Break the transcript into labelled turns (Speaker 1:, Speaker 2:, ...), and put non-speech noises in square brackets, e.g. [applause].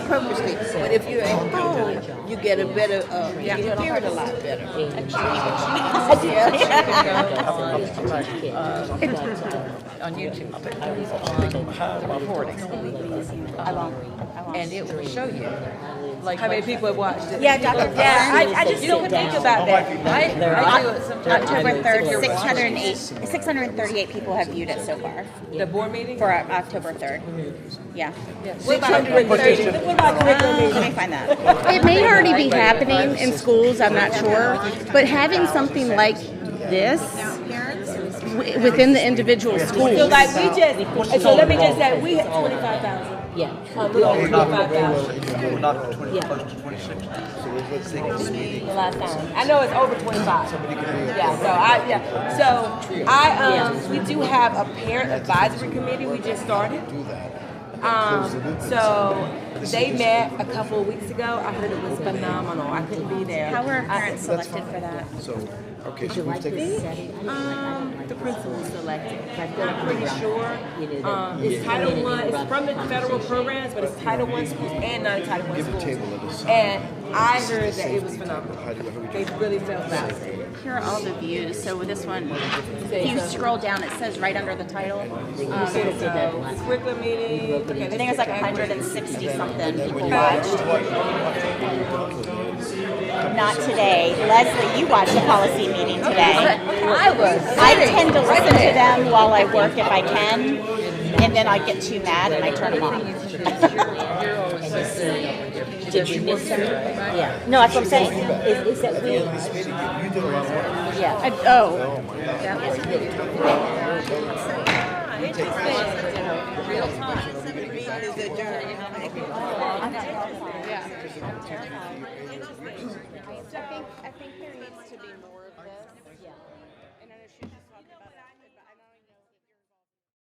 Speaker 1: purposely. But if you're at home, you get a better, uh, you can hear it a lot better. Yeah. [laughs] Uh,
Speaker 2: on YouTube. I was on the recording. And it will show you. Like
Speaker 3: How many people have watched it?
Speaker 4: Yeah, Dr.
Speaker 3: I, I
Speaker 4: Yeah,
Speaker 3: just don't think about that. I, I do it
Speaker 4: I,
Speaker 3: sometimes.
Speaker 4: October 3rd, 608, 638 people have viewed it so far
Speaker 3: The board meeting?
Speaker 4: for uh, October 3rd. Yeah.
Speaker 3: What about the-
Speaker 4: Um, Let me find that.
Speaker 5: It may already be happening in schools, I'm not sure, but having something like this w- within the individual
Speaker 3: So
Speaker 5: school,
Speaker 3: like we just, so let me just say, we had twenty-five thousand.
Speaker 2: Yeah.
Speaker 3: Um, we only
Speaker 6: We're not,
Speaker 3: twenty-five thousand
Speaker 6: we're not twenty, close to twenty-six now.
Speaker 3: the last time. I know it's over twenty-five. Yeah, so I, yeah, so I, um, we do have a parent advisory committee we just started. Um, so they met a couple of weeks ago. I heard it was phenomenal. I couldn't be there.
Speaker 4: How were
Speaker 3: I-
Speaker 4: parents selected for that?
Speaker 6: So, okay, so we've taken,
Speaker 3: Um, the principal selected. I'm pretty sure. Um, it's Title One. It's from the federal programs, but it's Title One schools and non-Title One schools. And I heard that it was phenomenal. They really felt that.
Speaker 4: Here are all the views. So with this one, if you scroll down, it says right under the title. Um,
Speaker 3: Okay, so curriculum meeting. Okay,
Speaker 4: I
Speaker 3: this
Speaker 4: think it's
Speaker 3: is
Speaker 4: like 160 something people watched. Not today. Leslie, you watched the policy meeting today.
Speaker 3: I was.
Speaker 4: I tend to listen to them while I work if I can, and then I get too mad and I turn them off.
Speaker 2: Did you miss it? Yeah.
Speaker 4: No, that's what I'm saying.
Speaker 2: Is, is that we?
Speaker 4: Yeah.
Speaker 5: I- oh,
Speaker 1: Meeting is adjourned.
Speaker 4: I think, I think there needs to be more of this.